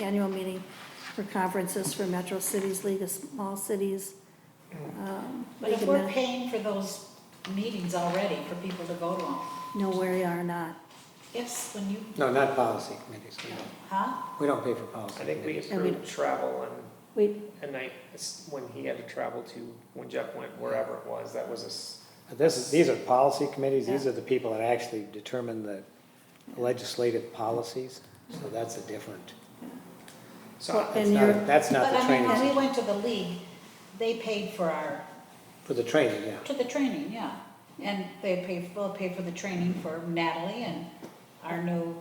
annual meeting for conferences for Metro Cities League of Small Cities. um, But if League of we're Min- paying for those meetings already for people to go to them, No, we are not. yes, when you, No, not policy committees. We don't- huh? We don't pay for policy I think we committees. And we- approved travel We, and a night, it's when he had to travel to, when Jeff went wherever it was, that was a, s- But This is, these are policy committees. These are the people that actually determine the legislative policies. So that's a different, so that's And you're- not, that's not But the I mean, when we training. went to the league, they paid for our, For the training, yeah. to the training, yeah. And they paid, well, paid for the training for Natalie and our new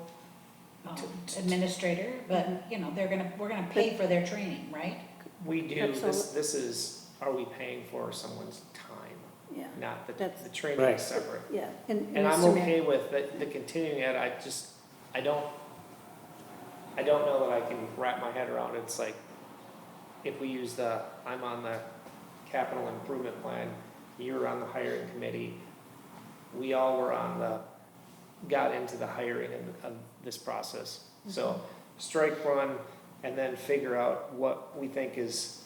um, administrator, but, you know, they're gonna, we're gonna pay for their training, right? we do, this, Absolutely. this is, are we paying for someone's time? yeah, Not the, That's- the training Right. is separate. yeah. And And I'm Mr. Mayor- okay with the, the continuing it, I just, I don't, I don't know that I can wrap my head around, it's like, if we use the, I'm on the capital improvement plan, you're on the hiring committee, we all were on the, got into the hiring of, of this process. So, strike one, and then figure out what we think is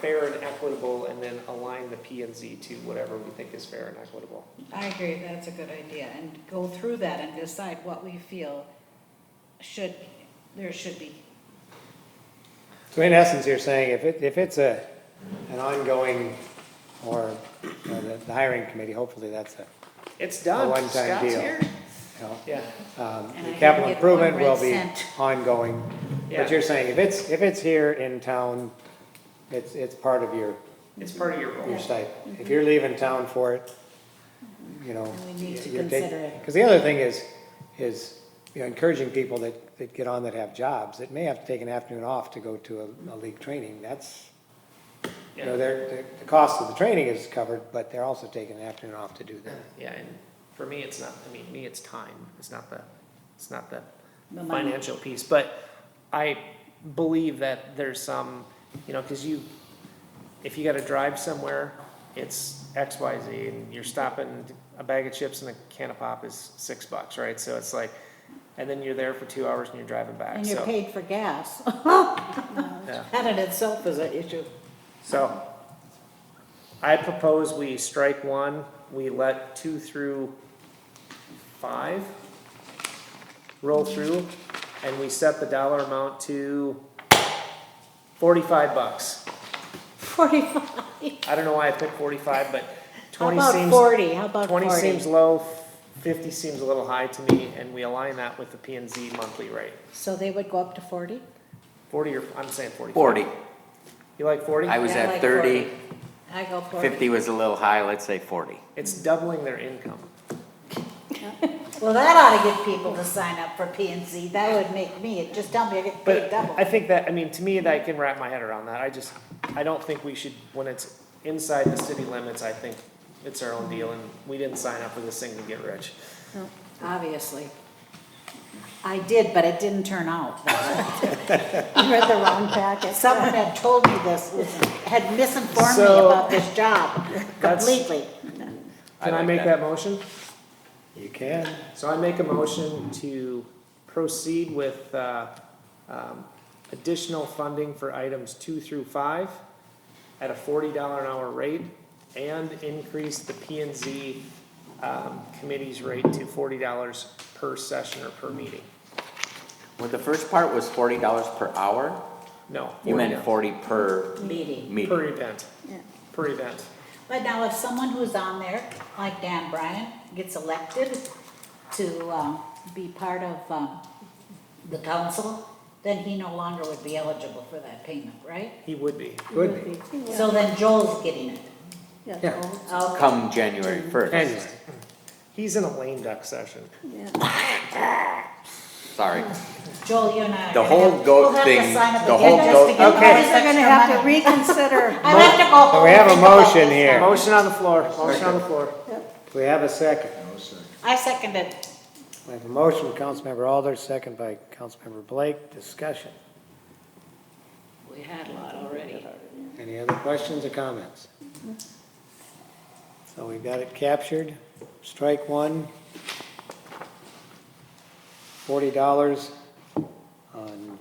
fair and equitable, and then align the P and Z to whatever we think is fair and equitable. I agree, that's a good idea, and go through that and decide what we feel should, there should be. So in essence, you're saying if it, if it's a, an ongoing, or you know, the the hiring committee, hopefully that's a, It's done. A one-time Scott's deal. here. you know, Yeah, And um, I the didn't capital get one improvement red will be cent. ongoing. yeah. But you're saying if it's, if it's here in town, it's, it's part of your, It's part of your your role. stipend. If you're leaving town for it, you know. Mm-hmm. And we need to you're consider it. Because the other thing is, is, you know, encouraging people that, that get on that have jobs, that may have to take an afternoon off to go to a, a league training, that's, you know, Yeah, they're, they're- the cost of the training is covered, but they're also taking an afternoon off to do that. yeah, and for me, it's not, I mean, me, it's time. It's not the, it's not the The money. financial piece, but I believe that there's some, you know, cause you, if you gotta drive somewhere, it's X, Y, Z, and you're stopping, a bag of chips and a can of pop is six bucks, right? So it's like, and then you're there for two hours and you're driving back, And you're so, paid for gas. yeah. That in itself is an issue. So, I propose we strike one, we let two through five roll through, and we set the dollar amount to forty-five bucks. Forty-five. I don't know why I picked forty-five, but How twenty about seems, forty, how about twenty forty? seems low, fifty seems a little high to me, and we align that with the P and Z monthly rate. So they would go up to forty? Forty or, I'm saying forty. 40. You like forty? I was Yeah, I at like 30, 40. I go forty. 50 was a little high, let's say 40. It's doubling their income. Well, that ought to get people to sign up for P and Z, that would make me, just tell me I get paid But double. I think that, I mean, to me, that I can wrap my head around that. I just, I don't think we should, when it's inside the city limits, I think it's our own deal and we didn't sign up for this thing to get rich. Obviously. I did, but it didn't turn out. You read the wrong packet. Someone had told me this, had misinformed me So- about this job That's- completely. Can I like make that that. motion? You can. So I make a motion to proceed with, uh, um, additional funding for items two through five at a forty dollar an hour rate and increase the P and Z, um, committee's rate to forty dollars per session or per meeting. Well, the first part was $40 per hour. No. You meant $40. 40 per Meeting. Per meeting. event, Yeah. per event. But now if someone who's on there, like Dan Bryan, gets elected to um, be part of um, the council, then he no longer would be eligible for that payment, right? He would be. Would be. So then Joel's getting it. Yeah, Yeah. so, Okay. Come January 1st. Anyway, He's in a lame duck session. yeah. Sorry. Joel, you and I. are The gonna whole have- goat we'll have to thing, sign up the again whole just goat- to get all Okay. this We're gonna extra have to money. reconsider. I'll have to go home. we have a and think about motion this here. now. Motion on the floor, motion on the floor. we have a second. I second it. We have a motion, Councilmember Alders, second by Councilmember Blake, discussion. We had a lot already. Any other questions or comments? So we've got it captured, strike one. Forty dollars on